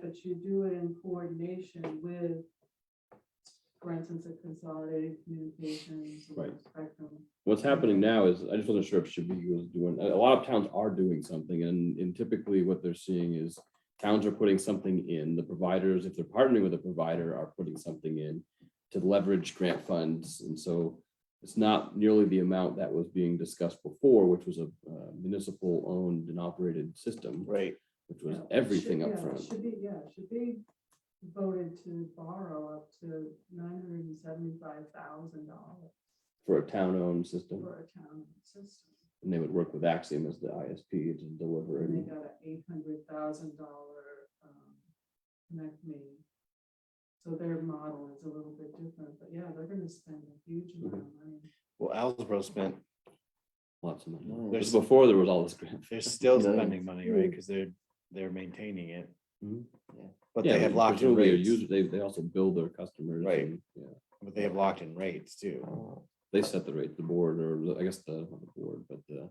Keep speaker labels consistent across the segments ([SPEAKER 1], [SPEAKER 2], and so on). [SPEAKER 1] but you do it in coordination with, for instance, a consolidated communications. or
[SPEAKER 2] Right.
[SPEAKER 1] Spectrum.
[SPEAKER 2] What's happening now is, I just wasn't sure if Shabiki was doing, a a lot of towns are doing something and and typically what they're seeing is towns are putting something in, the providers, if they're partnering with a provider, are putting something in to leverage grant funds. And so it's not nearly the amount that was being discussed before, which was a uh, municipal owned and operated system,
[SPEAKER 3] Right.
[SPEAKER 2] which
[SPEAKER 1] Yeah,
[SPEAKER 2] was
[SPEAKER 1] it should-
[SPEAKER 2] everything
[SPEAKER 1] yeah, it
[SPEAKER 2] upfront.
[SPEAKER 1] Should be, yeah, it should be voted to borrow up to nine hundred and seventy-five thousand dollars
[SPEAKER 2] for a town-owned system.
[SPEAKER 1] for a town system.
[SPEAKER 2] And they would work with Axiom as the ISP to deliver
[SPEAKER 1] And they
[SPEAKER 2] and
[SPEAKER 1] got an eight hundred thousand dollar, um, connect me. So their model is a little bit different, but yeah, they're gonna spend a huge amount of money.
[SPEAKER 3] Well, Alsbro spent,
[SPEAKER 2] lots of money.
[SPEAKER 3] No,
[SPEAKER 2] This
[SPEAKER 3] there's-
[SPEAKER 2] is before there was all this grant.
[SPEAKER 3] they're still
[SPEAKER 2] Millions.
[SPEAKER 3] spending money, right? Because they're, they're maintaining it.
[SPEAKER 2] Mhm.
[SPEAKER 3] Yeah. But
[SPEAKER 2] Yeah,
[SPEAKER 3] they have locked in
[SPEAKER 2] presumably their
[SPEAKER 3] rates,
[SPEAKER 2] user- They, they also build their customers.
[SPEAKER 3] Right.
[SPEAKER 2] and, yeah,
[SPEAKER 3] but they have locked in rates too.
[SPEAKER 2] They set the rate, the board, or the- I guess the, not the board, but the.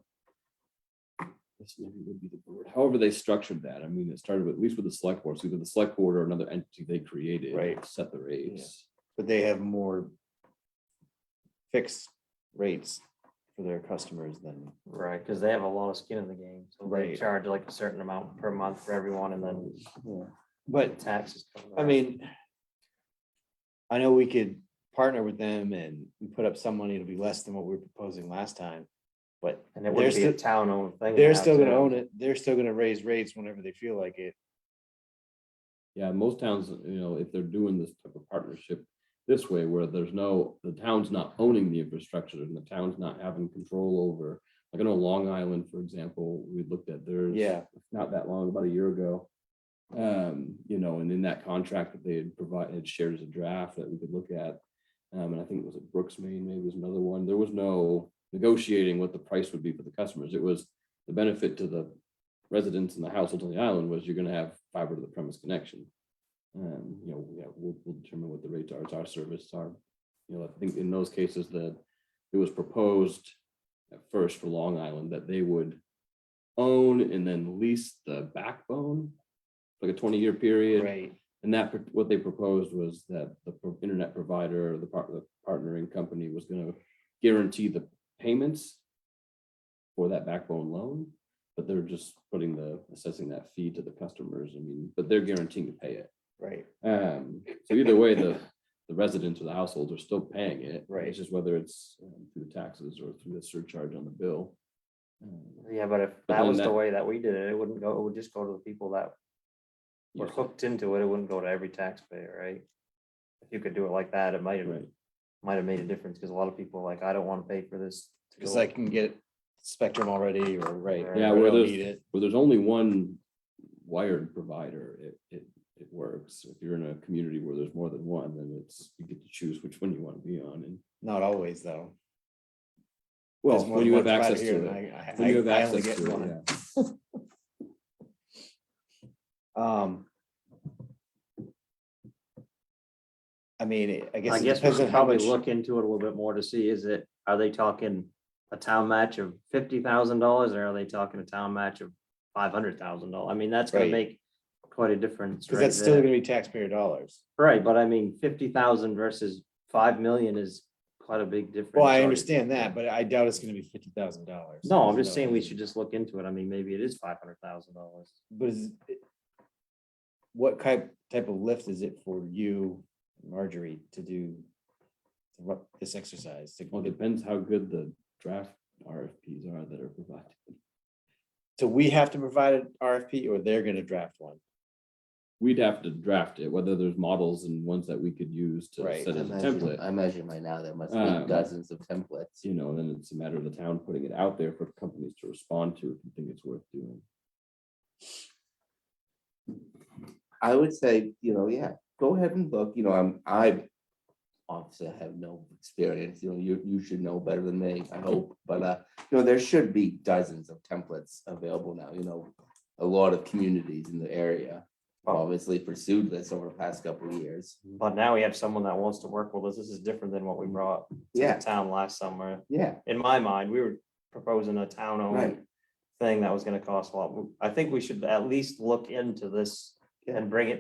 [SPEAKER 2] This maybe would be the board. However, they structured that. I mean, it started with, at least with the select board, so either the select board or another entity they created.
[SPEAKER 3] Right.
[SPEAKER 2] Set the rates.
[SPEAKER 3] But they have more fixed rates for their customers than,
[SPEAKER 4] Right, because they have a lot of skin in the game, so they
[SPEAKER 3] Right.
[SPEAKER 4] charge like a certain amount per month for everyone and then the
[SPEAKER 3] but
[SPEAKER 4] taxes. cover
[SPEAKER 3] I
[SPEAKER 4] that.
[SPEAKER 3] mean, I know we could partner with them and we put up some money, it'll be less than what we were proposing last time. But
[SPEAKER 4] And
[SPEAKER 3] they're
[SPEAKER 4] it would be a
[SPEAKER 3] still-
[SPEAKER 4] town owned thing.
[SPEAKER 3] they're still gonna own it, they're still gonna raise rates whenever they feel like it.
[SPEAKER 2] Yeah, most towns, you know, if they're doing this type of partnership this way, where there's no, the town's not owning the infrastructure and the town's not having control over. Like I know Long Island, for example, we looked at theirs.
[SPEAKER 3] Yeah.
[SPEAKER 2] Not that long, about a year ago. Um, you know, and in that contract that they had provided, had shared as a draft that we could look at. Um, and I think it was at Brooks, Maine, maybe was another one. There was no negotiating what the price would be for the customers. It was the benefit to the residents and the households on the island was you're gonna have fiber to the premise connection. Um, you know, yeah, we'll, we'll determine what the rates are, it's our service, our, you know, I think in those cases that it was proposed at first for Long Island that they would own and then lease the backbone, like a twenty-year period.
[SPEAKER 3] Right.
[SPEAKER 2] And that, pro- what they proposed was that the pro- internet provider, or the part, the partnering company was gonna guarantee the payments for that backbone loan, but they're just putting the, assessing that fee to the customers, I mean, but they're guaranteeing to pay it.
[SPEAKER 3] Right,
[SPEAKER 2] Um, so either way, the, the residents or the households are still paying it.
[SPEAKER 3] Right.
[SPEAKER 2] It's just whether it's um, through the taxes or through the surcharge on the bill. Um,
[SPEAKER 4] Yeah, but if
[SPEAKER 2] But
[SPEAKER 4] that
[SPEAKER 2] then
[SPEAKER 4] was the
[SPEAKER 2] that-
[SPEAKER 4] way that we did it, it wouldn't go, it would just go to the people that were
[SPEAKER 2] yeah,
[SPEAKER 4] hooked into it. It wouldn't go to every taxpayer, right? If you could do it like that, it might have,
[SPEAKER 2] Right,
[SPEAKER 4] might have made a difference because a lot of people are like, I don't want to pay for this. to
[SPEAKER 3] cause
[SPEAKER 4] go
[SPEAKER 3] I can get Spectrum already or right.
[SPEAKER 4] Yeah,
[SPEAKER 3] or I
[SPEAKER 2] yeah, where
[SPEAKER 3] don't
[SPEAKER 2] there's,
[SPEAKER 3] need it.
[SPEAKER 2] where there's only one wired provider, it, it, it works. If you're in a community where there's more than one, then it's, you get to choose which one you want to be on and.
[SPEAKER 3] Not always, though.
[SPEAKER 2] Well,
[SPEAKER 3] There's more
[SPEAKER 2] when
[SPEAKER 3] than
[SPEAKER 2] you
[SPEAKER 3] one
[SPEAKER 2] have access
[SPEAKER 3] provider here,
[SPEAKER 2] to
[SPEAKER 3] and
[SPEAKER 2] it.
[SPEAKER 3] I- I-
[SPEAKER 2] When you have
[SPEAKER 3] I- I only
[SPEAKER 2] access
[SPEAKER 3] get
[SPEAKER 2] to it,
[SPEAKER 3] one.
[SPEAKER 2] yeah.
[SPEAKER 3] Um. I mean, it- I guess.
[SPEAKER 4] I
[SPEAKER 3] it
[SPEAKER 4] guess we
[SPEAKER 3] depends on
[SPEAKER 4] should
[SPEAKER 3] how
[SPEAKER 4] probably
[SPEAKER 3] much-
[SPEAKER 4] look into it a little bit more to see, is it, are they talking a town match of fifty thousand dollars or are they talking a town match of five hundred thousand dollars? I mean, that's gonna
[SPEAKER 3] Right.
[SPEAKER 4] make quite a difference.
[SPEAKER 3] Cause
[SPEAKER 4] right
[SPEAKER 3] that's still
[SPEAKER 4] there.
[SPEAKER 3] gonna be taxpayer dollars.
[SPEAKER 4] Right, but I mean, fifty thousand versus five million is quite a big difference.
[SPEAKER 3] Well, I
[SPEAKER 4] already.
[SPEAKER 3] understand that, but I doubt it's gonna be fifty thousand dollars.
[SPEAKER 4] No, I'm just saying we should just look into it. I mean, maybe it is five hundred thousand dollars.
[SPEAKER 3] But is. it- What type, type of lift is it for you, Marjorie, to do? to run This exercise to,
[SPEAKER 2] Well, it depends how good the draft RFPs are that are provided.
[SPEAKER 3] so we have to provide an RFP or they're gonna draft one?
[SPEAKER 2] We'd have to draft it, whether there's models and ones that we could use to
[SPEAKER 3] Right.
[SPEAKER 2] set
[SPEAKER 5] I
[SPEAKER 2] as a
[SPEAKER 5] imagine-
[SPEAKER 2] template.
[SPEAKER 5] I imagine by now there must
[SPEAKER 2] Um,
[SPEAKER 5] be dozens of templates.
[SPEAKER 2] you know, then it's a matter of the town putting it out there for companies to respond to if you think it's worth doing.
[SPEAKER 5] I would say, you know, yeah, go ahead and look, you know, I'm, I obviously have no experience, you know, you, you should know better than me, I hope, but, uh, you know, there should be dozens of templates available now, you know, a lot of communities in the area have obviously pursued this over the past couple of years.
[SPEAKER 4] But now we have someone that wants to work with us. This is different than what we brought to the
[SPEAKER 5] Yeah,
[SPEAKER 4] town last summer.
[SPEAKER 5] yeah,
[SPEAKER 4] In my mind, we were proposing a town owned
[SPEAKER 5] right,
[SPEAKER 4] thing that was gonna cost a lot. I think we should at least look into this and bring it